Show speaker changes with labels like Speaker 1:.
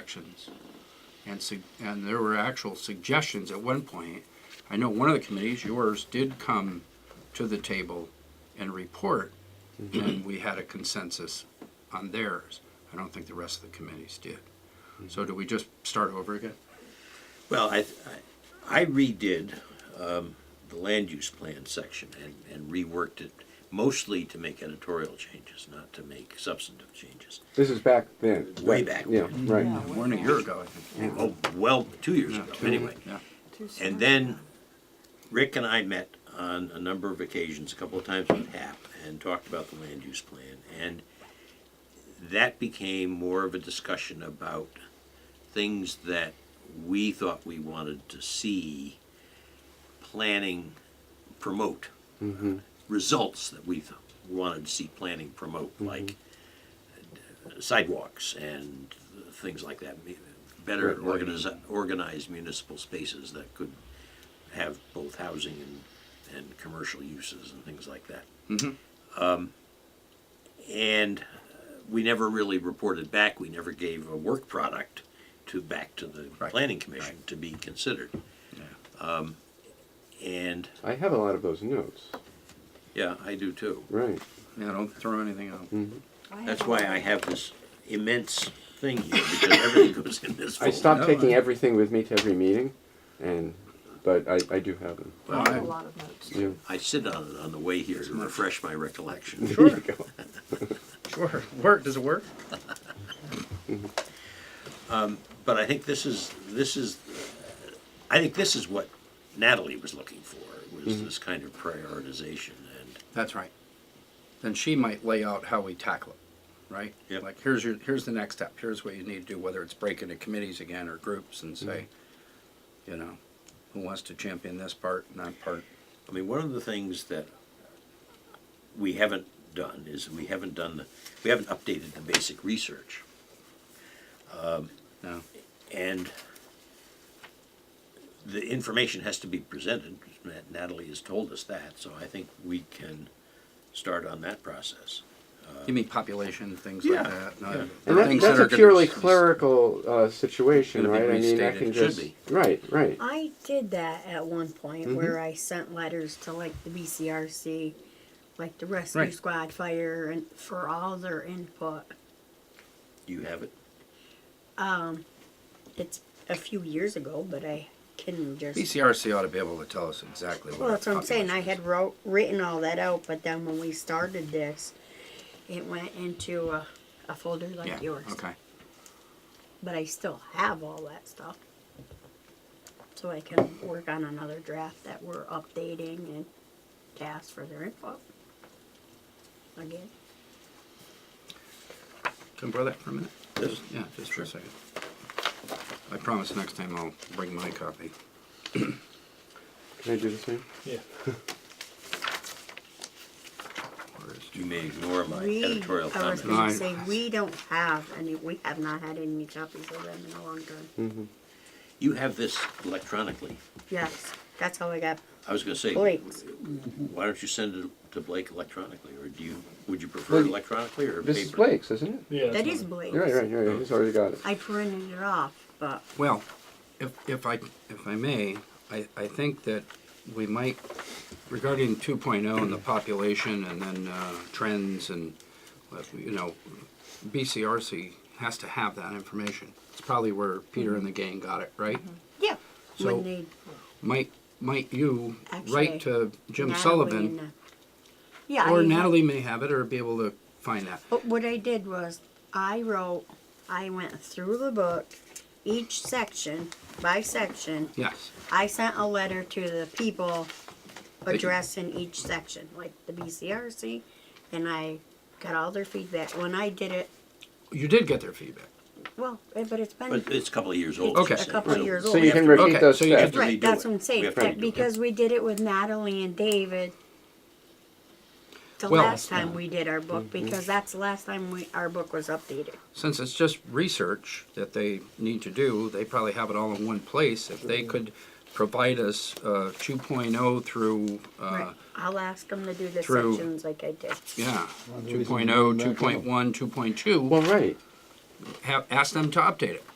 Speaker 1: sections. And, sug- and there were actual suggestions at one point. I know one of the committees, yours, did come to the table and report,
Speaker 2: Mm-hmm.
Speaker 1: and we had a consensus on theirs. I don't think the rest of the committees did.
Speaker 2: Mm-hmm.
Speaker 1: So do we just start over again?
Speaker 3: Well, I, I I redid um, the land use plan section and, and reworked it mostly to make editorial changes, not to make substantive changes.
Speaker 2: This is back then.
Speaker 3: Way
Speaker 2: right?
Speaker 3: back
Speaker 2: Yeah,
Speaker 3: when.
Speaker 2: right.
Speaker 1: One a year ago, I think.
Speaker 3: Oh, well, two years ago,
Speaker 1: two.
Speaker 3: anyway.
Speaker 1: Yeah.
Speaker 3: And then Rick and I met on a number of occasions, a couple of times with HAP, and talked about the land use plan. And that became more of a discussion about things that we thought we wanted to see planning promote. Results that we th- wanted to see planning promote, like sidewalks and things like that. Better
Speaker 2: Right, right.
Speaker 3: organiz- organized municipal spaces that could have both housing and, and commercial uses and things like that. Um, and uh, we never really reported back. We never gave a work product to back to the
Speaker 1: Right,
Speaker 3: planning commission to be considered. Um, and
Speaker 2: I have a lot of those notes.
Speaker 3: yeah, I do too.
Speaker 2: Right.
Speaker 1: Yeah, don't throw anything out.
Speaker 2: Mm-hmm.
Speaker 3: That's why I have this immense thing here because everything goes in this.
Speaker 2: I
Speaker 3: folder.
Speaker 2: stopped
Speaker 1: Oh, no,
Speaker 2: taking
Speaker 1: I-
Speaker 2: everything with me to every meeting, and but I, I do have them.
Speaker 3: Well,
Speaker 1: I-
Speaker 4: A lot of notes.
Speaker 2: Yeah.
Speaker 3: I sit on it on the way here to refresh my recollection.
Speaker 2: There you go.
Speaker 1: Sure. Work, does it work?
Speaker 3: But I think this is, this is, I think this is what Natalie was looking for, was
Speaker 2: Mm-hmm.
Speaker 3: this kind of prioritization and,
Speaker 1: That's right. Then she might lay out how we tackle it, right?
Speaker 3: Yep.
Speaker 1: Like, here's your, here's the next step, here's what you need to do, whether it's break into committees again or groups and say,
Speaker 2: Mm-hmm.
Speaker 1: you know, who wants to champion this part and that part?
Speaker 3: I mean, one of the things that we haven't done is we haven't done, the we haven't updated the basic research.
Speaker 1: No,
Speaker 3: And the information has to be presented, Nat- Natalie has told us that, so I think we can start on that process.
Speaker 1: you mean population, things like
Speaker 3: Yeah,
Speaker 1: that? not
Speaker 3: yeah.
Speaker 1: the
Speaker 2: Uh, And that,
Speaker 1: things
Speaker 2: that's
Speaker 1: that
Speaker 2: a
Speaker 1: are gonna
Speaker 2: purely
Speaker 1: be-
Speaker 2: clerical uh, situation,
Speaker 1: Gonna be
Speaker 2: right? I mean, I
Speaker 1: restated.
Speaker 2: can
Speaker 3: Should
Speaker 2: just
Speaker 3: be.
Speaker 2: right, right.
Speaker 4: I did that at one
Speaker 1: Mm-hmm.
Speaker 4: point where I sent letters to like the BCRC, like the rescue
Speaker 1: Right.
Speaker 4: squad, fire, and for all their input.
Speaker 3: Do you have it?
Speaker 4: It's a few years ago, but I can just.
Speaker 1: BCRC ought to be able to tell us exactly what.
Speaker 4: Well,
Speaker 1: our
Speaker 4: that's what I'm saying. I
Speaker 1: population
Speaker 4: had wrote written all that out, but then when we started this, it went into a, a folder
Speaker 1: is.
Speaker 4: like
Speaker 1: Yeah,
Speaker 4: yours.
Speaker 1: Okay,
Speaker 4: But I still have all that stuff, so I can work on another draft that we're updating and to ask for their input. Again.
Speaker 1: can I borrow that for a minute?
Speaker 3: Yes.
Speaker 1: Yeah, just for a second. I promise next time I'll bring my copy.
Speaker 2: Can I do the same?
Speaker 5: Yeah.
Speaker 1: Where is-
Speaker 3: You may ignore my
Speaker 4: We,
Speaker 3: editorial
Speaker 4: I was
Speaker 3: comment.
Speaker 4: going
Speaker 1: Right.
Speaker 4: to say, we don't have any, we have not had any copies of them in a long
Speaker 1: Hmm.
Speaker 4: time.
Speaker 3: You have this electronically.
Speaker 4: Yes, that's how I got,
Speaker 3: I was gonna say,
Speaker 4: Blake's.
Speaker 3: why don't you send it to Blake electronically, or do you, would you prefer it
Speaker 2: Blake-
Speaker 3: electronically or paper?
Speaker 2: This is Blake's, isn't it?
Speaker 5: Yeah.
Speaker 4: that
Speaker 5: that's
Speaker 4: is
Speaker 5: mine.
Speaker 4: Blake's.
Speaker 2: You're right, right, you're right. He's already got it.
Speaker 4: I printed it off, but
Speaker 1: Well, if, if I, if I may, I, I think that we might, regarding two oh and the population and then, uh, trends and, uh, you know, BCRC has to have that information. It's probably where Peter and the
Speaker 4: Mm-hmm.
Speaker 1: gang got it, right?
Speaker 4: yeah,
Speaker 1: So-
Speaker 4: when they,
Speaker 1: Might, might you write to
Speaker 4: Actually,
Speaker 1: Jim
Speaker 4: Natalie and, uh,
Speaker 1: Sullivan?
Speaker 4: Yeah.
Speaker 1: Or
Speaker 4: I- Oh.
Speaker 1: Natalie may have it or be able to find that.
Speaker 4: But what I did was, I wrote, I went through the book, each section, by section.
Speaker 1: Yes,
Speaker 4: I sent a letter to the people addressing each section, like the BCRC, and I got all their feedback. When I did it,
Speaker 1: you did get their feedback.
Speaker 4: well, eh, but it's been
Speaker 3: But it's a couple of years old.
Speaker 1: Okay.
Speaker 3: she said,
Speaker 4: A couple of
Speaker 3: so
Speaker 4: years
Speaker 3: we
Speaker 4: old.
Speaker 2: So you
Speaker 3: have
Speaker 2: can
Speaker 3: to-
Speaker 2: repeat
Speaker 1: Okay,
Speaker 2: those
Speaker 1: so you
Speaker 2: steps.
Speaker 1: just-
Speaker 3: redo
Speaker 4: right. That's
Speaker 3: it.
Speaker 4: what I'm saying.
Speaker 3: We have to
Speaker 4: that-
Speaker 3: redo it.
Speaker 4: because we did it with Natalie and David. The
Speaker 1: Well-
Speaker 4: last time we did our book,
Speaker 3: Mm-hmm.
Speaker 4: because that's the last time we our book was updated.
Speaker 1: since it's just research that they need to do, they probably have it all in one place. If they could provide us uh, 2.0 through, uh,
Speaker 4: right. I'll ask them to do the
Speaker 1: through-
Speaker 4: sections like I did.
Speaker 1: yeah, oh,
Speaker 5: Well, the
Speaker 1: 2.0,
Speaker 5: reason we didn't back
Speaker 1: 2.1,
Speaker 5: up.
Speaker 1: 2.2,
Speaker 2: Well, right.
Speaker 1: have, ask them to update it.